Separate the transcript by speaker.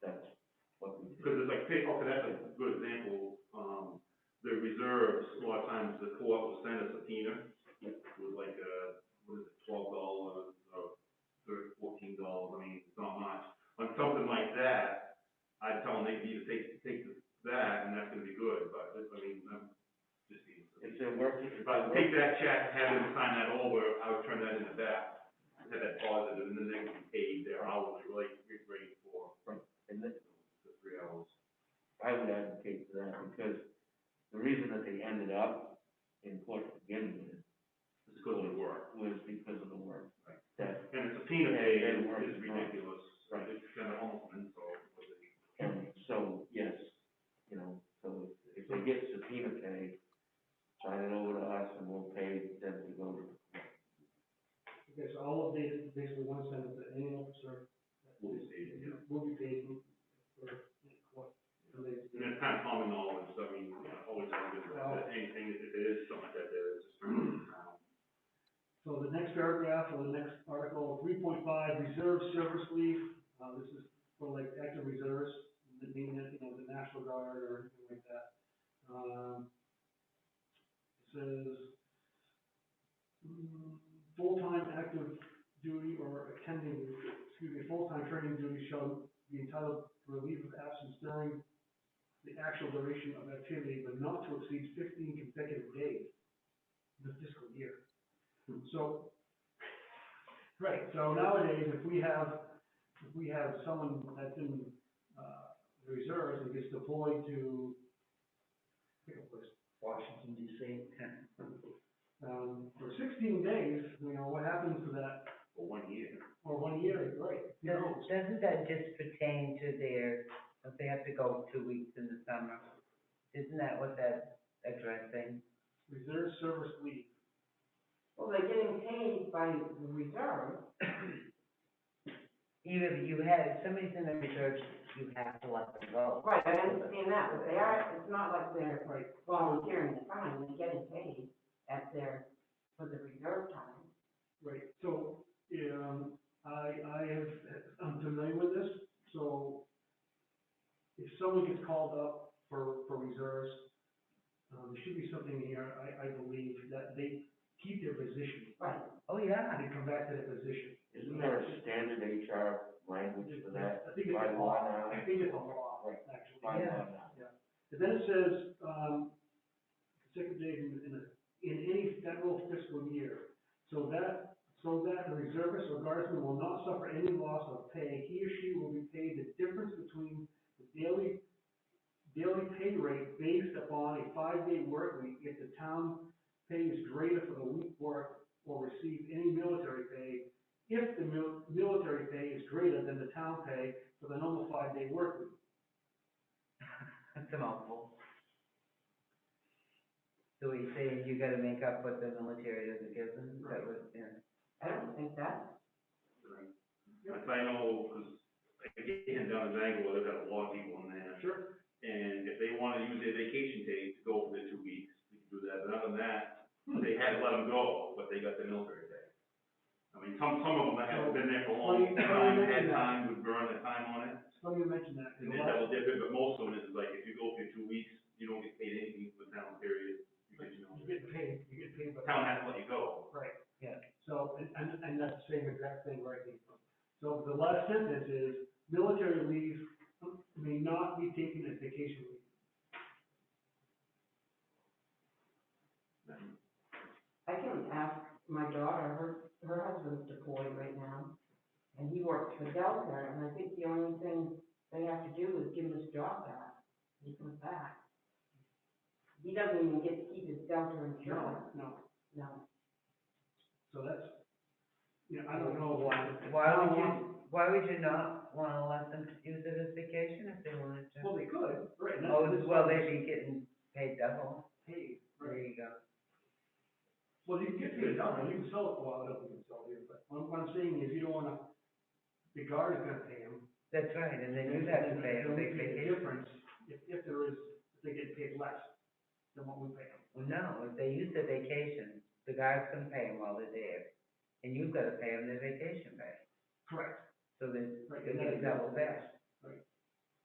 Speaker 1: take, okay, that's a good example, um, the reserves, a lot of times the court will send a subpoena with like a, what is it, twelve dollars, or thirteen, fourteen dollars, I mean, it's not much. On something like that, I'd tell them they could either take, take that, and that's gonna be good, but, I mean, I'm just being.
Speaker 2: It's a working,
Speaker 1: If I would take that check, have them sign that over, I would turn that into that, have that positive, and then they can pay their hourly rate, rate for
Speaker 2: and that-
Speaker 1: the three hours.
Speaker 2: I would advocate for that, because the reason that they ended up in court to begin with
Speaker 1: It's because of the work.
Speaker 2: was because of the work.
Speaker 1: Right.
Speaker 2: That
Speaker 1: And the subpoena
Speaker 2: Yeah,
Speaker 1: pay
Speaker 2: they
Speaker 1: is
Speaker 2: work
Speaker 1: is
Speaker 2: as well.
Speaker 1: ridiculous,
Speaker 2: Right.
Speaker 1: it's kind of almost an insult, but they-
Speaker 2: county, so, yes, you know, so if they get subpoena pay, sign it over to us and we'll pay them to go to.
Speaker 3: Okay, so all of these, basically one sentence, that any officer.
Speaker 1: Will be paid, yeah.
Speaker 3: Will be paid for, what, for these-
Speaker 1: and it's kind of common knowledge, so I mean, you know, always have good,
Speaker 3: Well-
Speaker 1: anything, if it is something like that, there is just turn it around.
Speaker 3: So the next paragraph or the next article, three point five, reserve service leave, uh, this is for like active reserves, the being, you know, the National Guard or anything like that. Um, it says, mm, full-time active duty or attending, excuse me, full-time training duty shall be entitled to a leave of absence during the actual duration of activity, but not to exceed fifteen consecutive days in the fiscal year. So, right, so nowadays, if we have, if we have someone that's in, uh, the reserves and gets deployed to, pick a place, Washington DC. Um, for sixteen days, you know, what happens to that,
Speaker 1: for one year.
Speaker 3: or one year, right? Who knows?
Speaker 4: Doesn't, doesn't that just pertain to their, if they have to go two weeks in the summer? Isn't that what that's addressing?
Speaker 3: Reserve service leave,
Speaker 5: Well, they're getting paid by the reserve.
Speaker 4: You, you had, if somebody's in the reserve, you have to let them go.
Speaker 5: Right, I understand that, but they are, it's not like they're
Speaker 3: right,
Speaker 5: volunteering the time, they're getting paid at their, for the reserve time.
Speaker 3: right, so, um, I, I have, I'm familiar with this, so if someone gets called up for, for reserves, um, there should be something here, I, I believe, that they keep their position,
Speaker 5: Right,
Speaker 4: Oh, yeah.
Speaker 3: and they come back to that position.
Speaker 2: Isn't there a standard HR language for that?
Speaker 3: I think it's
Speaker 2: By
Speaker 3: a
Speaker 2: law
Speaker 3: law,
Speaker 2: now?
Speaker 3: I think it's a law,
Speaker 2: Right.
Speaker 3: actually.
Speaker 2: By law
Speaker 4: Yeah.
Speaker 2: now.
Speaker 3: And then it says, um, consecutive in, in, a- in any federal fiscal year. So that, so that the reservist or guardsman will not suffer any loss of pay, he or she will be paid the difference between the daily, daily pay rate based upon a five-day work week if the town pay is greater for the week work or receive any military pay if the mil- military pay is greater than the town pay for the normal five-day work week.
Speaker 4: That's a mouthful. So we say you gotta make up what the military doesn't give them, Is that was, yeah.
Speaker 5: I don't think that,
Speaker 1: If I know, because again, down in Bangor, they've got a lot of people in there,
Speaker 3: Sure,
Speaker 1: and if they want to use their vacation day to go for their two weeks, they can do that, but other than that,
Speaker 3: Hmm.
Speaker 1: they had to let them go, but they got the military day. I mean, some, some of them that have been there for a long
Speaker 3: Funny- funny
Speaker 1: time,
Speaker 3: you
Speaker 1: had
Speaker 3: mention that.
Speaker 1: time, would burn the time on it,
Speaker 3: Let me mention that.
Speaker 1: And then double dip it, but most of it is like, if you go for two weeks, you don't get paid anything for town period, because you know,
Speaker 3: You get paid, you get paid by.
Speaker 1: the town has to let you go.
Speaker 3: Right.
Speaker 4: Yeah.
Speaker 3: So, and, and, and that's the same exact thing right here. So the last sentence is, military leave may not be taken as vacation leave.
Speaker 5: I can ask my daughter, her, her husband's deployed right now, and he works for Delta, and I think the only thing they have to do is give him his job back, he comes back. He doesn't even get to keep his Delta insurance,
Speaker 3: No,
Speaker 5: no.
Speaker 3: so that's, you know, I don't know why.
Speaker 4: Why
Speaker 3: I
Speaker 4: would
Speaker 3: don't want-
Speaker 4: you, why would you not wanna let them use it as vacation if they wanted to?
Speaker 3: Well, they could, right. and that's-
Speaker 4: Oh,
Speaker 3: that's
Speaker 4: well,
Speaker 3: why
Speaker 4: they'd be getting paid double.
Speaker 3: Paid, right.
Speaker 4: There you go.
Speaker 3: Well, you can get paid double, you can sell it, well, I don't think you can sell it, but what what I'm saying is, you don't wanna, the guard is gonna pay him,
Speaker 4: That's right, and then you'd have to pay a
Speaker 3: It'll
Speaker 4: big
Speaker 3: make a
Speaker 4: vacation.
Speaker 3: difference if, if there is, if they get paid less than what we pay them.
Speaker 4: Well, no, if they use their vacation, the guys can pay them while they're there, and you've gotta pay them their vacation pay,
Speaker 3: Correct.
Speaker 4: so they,
Speaker 3: Right,
Speaker 4: they
Speaker 3: and that
Speaker 4: get
Speaker 3: is-
Speaker 4: double that.